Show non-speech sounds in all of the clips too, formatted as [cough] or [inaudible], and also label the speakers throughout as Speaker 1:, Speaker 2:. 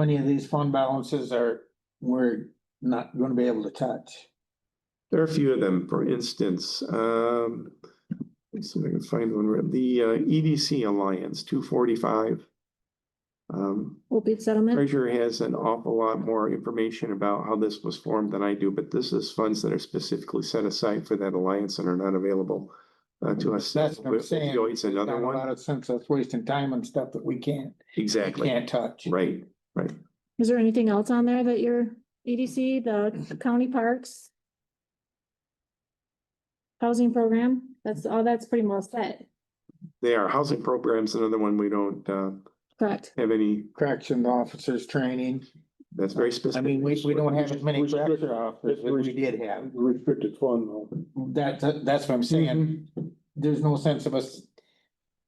Speaker 1: Many of these fund balances are, we're not gonna be able to touch.
Speaker 2: There are a few of them, for instance, um. let's see if I can find one, where- the uh, EDC Alliance, two forty-five. Um,
Speaker 3: Opioid settlement,
Speaker 2: treasurer has an awful lot more information about how this was formed than I do, but this is funds that are specifically set aside for that alliance and are not available. Uh, to us.
Speaker 1: That's what I'm saying.
Speaker 2: Opioids, another
Speaker 1: Not a lot
Speaker 2: one,
Speaker 1: of sense us wasting time on stuff that we can't, we
Speaker 2: exactly,
Speaker 1: can't touch.
Speaker 2: right, right.
Speaker 3: is there anything else on there that your EDC, the county parks? Housing program, that's all, that's pretty well set,
Speaker 2: They are housing programs, another one we don't uh
Speaker 3: correct?
Speaker 2: have any,
Speaker 1: Correction officers training.
Speaker 2: that's very
Speaker 1: I
Speaker 2: specific.
Speaker 1: mean, we, we don't have as many
Speaker 4: Restricted-
Speaker 1: correction officers as we did have.
Speaker 4: Restricted fund though.
Speaker 1: That, that- that's what I'm saying.
Speaker 2: Mm-hmm.
Speaker 1: There's no sense of us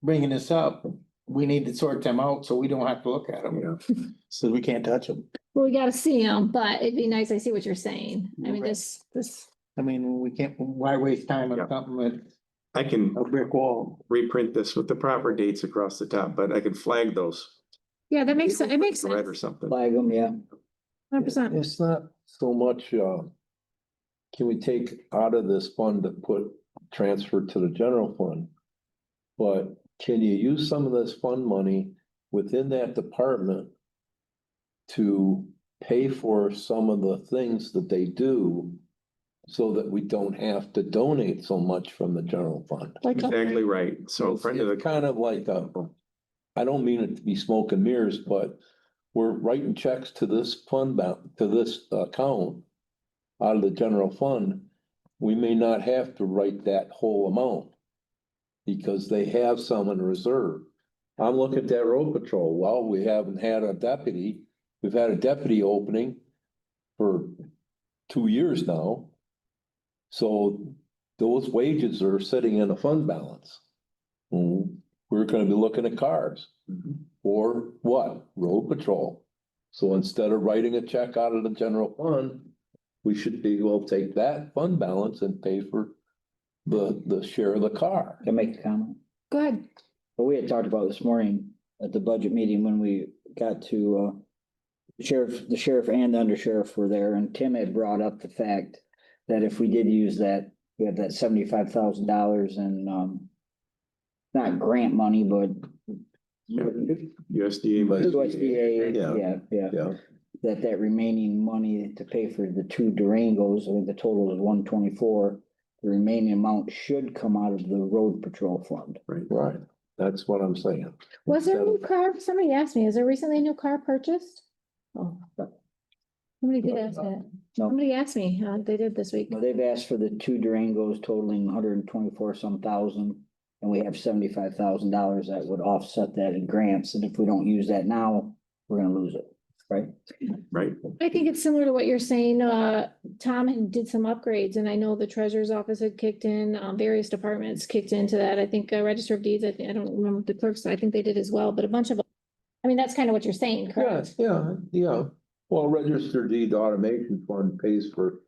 Speaker 1: bringing this up. We need to sort them out so we don't have to look at them,
Speaker 2: Yeah,
Speaker 1: so we can't touch them.
Speaker 3: Well, we gotta see them, but it'd be nice, I see what you're saying, I mean,
Speaker 1: Right.
Speaker 3: this, this,
Speaker 1: I mean, we can't, why waste time on
Speaker 2: Yeah.
Speaker 1: something that's
Speaker 2: I can
Speaker 1: a brick wall?
Speaker 2: reprint this with the proper dates across the top, but I can flag those.
Speaker 3: yeah, that makes, sen- it makes
Speaker 2: Red or
Speaker 3: sense,
Speaker 2: something.
Speaker 5: Flag them, yeah.
Speaker 3: hundred percent.
Speaker 5: It's not so much, uh, can we take out of this fund to put, transfer to the general fund? But can you use some of this fund money within that department to pay for some of the things that they do so that we don't have to donate so much from the general fund?
Speaker 3: Like,
Speaker 2: Exactly right. So friend of
Speaker 5: It's
Speaker 2: the,
Speaker 5: Kind of like, uh, I don't mean it to be smoke and mirrors, but we're writing checks to this fund, ba- to this account out of the general fund. We may not have to write that whole amount because they have some in reserve. I'm looking at that road patrol. Well, we haven't had a deputy. We've had a deputy opening for two years now. So those wages are sitting in a fund balance. Mm, We're gonna be looking at cars or what? Road patrol. So instead of writing a check out of the general fund, we should be, well, take that fund balance and pay for the, the share of the car.
Speaker 6: Can I make a comment?
Speaker 3: go ahead,
Speaker 6: But we had talked about this morning at the budget meeting when we got to, uh, sheriff, the sheriff and the undersheriff were there and Tim had brought up the fact that if we did use that, we have that seventy-five thousand dollars in, um, not grant money, but
Speaker 2: USDA.
Speaker 5: But-
Speaker 6: USDA,
Speaker 5: Yeah.
Speaker 6: yeah, yeah.
Speaker 5: Yeah.
Speaker 6: That that remaining money to pay for the two Durangos, I think the total is one twenty-four. The remaining amount should come out of the road patrol fund.
Speaker 5: Right, that's what I'm saying.
Speaker 3: was there a new car, somebody asked me, is there recently a new car purchased? Oh, Somebody did ask that,
Speaker 6: No.
Speaker 3: somebody asked me, uh, they did this week.
Speaker 6: Now, they've asked for the two Durangos totaling hundred and twenty-four some thousand. And we have seventy-five thousand dollars that would offset that in grants, and if we don't use that now, we're gonna lose it, right?
Speaker 2: Right.
Speaker 3: I think it's similar to what you're saying, uh, Tom had did some upgrades and I know the treasurer's office had kicked in, um, various departments kicked into that. I think uh, register of deeds, I, thi- I don't remember the clerks, I think they did as well, but a bunch of. I mean, that's kind of what you're saying,
Speaker 5: Yeah,
Speaker 3: correct?
Speaker 5: yeah, yeah. Well, registered deed automation fund pays for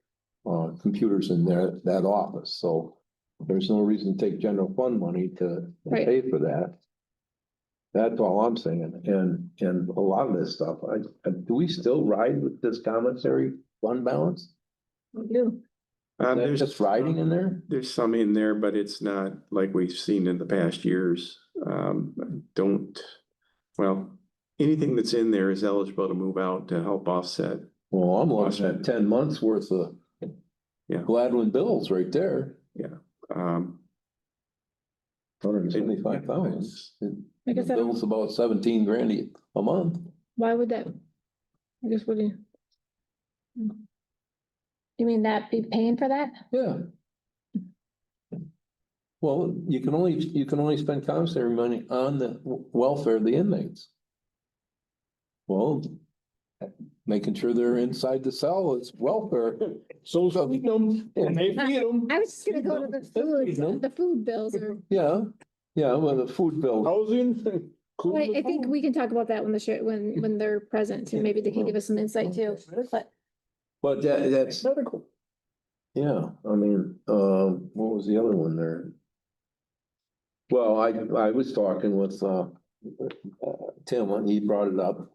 Speaker 5: uh computers in their that office, so there's no reason to take general fund money to to
Speaker 3: Right.
Speaker 5: pay for that. That's all I'm saying, and and a lot of this stuff, I, I- do we still ride with this commissary fund balance?
Speaker 2: Um,
Speaker 5: That's
Speaker 2: there's
Speaker 5: just riding in there?
Speaker 2: There's some in there, but it's not like we've seen in the past years. Um, I don't, well, anything that's in there is eligible to move out to help offset.
Speaker 5: Well, I'm looking at ten months worth of
Speaker 2: Yeah.
Speaker 5: Gladwin bills right there,
Speaker 2: Um,
Speaker 5: hundred and seventy-five thousand.
Speaker 3: Like I said,
Speaker 5: Bills about seventeen grand a- a month.
Speaker 3: why would that? I guess what do you? hmm. You mean that be paying for that?
Speaker 5: Yeah. Well, you can only, you can only spend commissary money on the w- welfare of the inmates. Well, making sure they're inside the cell is
Speaker 3: [laughs]
Speaker 5: welfare.
Speaker 4: So,
Speaker 5: So, you know,
Speaker 4: and they feed them,
Speaker 3: I was just gonna go to the food, the food bills or,
Speaker 5: Yeah, yeah, well, the food
Speaker 3: Oh.
Speaker 5: bill,
Speaker 4: housing.
Speaker 3: Wait, I think we can talk about that when the share, when, when they're present too. Maybe they can give us some insight too. But
Speaker 5: but that, that's,
Speaker 4: Medical.
Speaker 5: yeah, I mean, um, what was the other one there? Well, I, I was talking with, uh, uh, Tim, and he brought it up.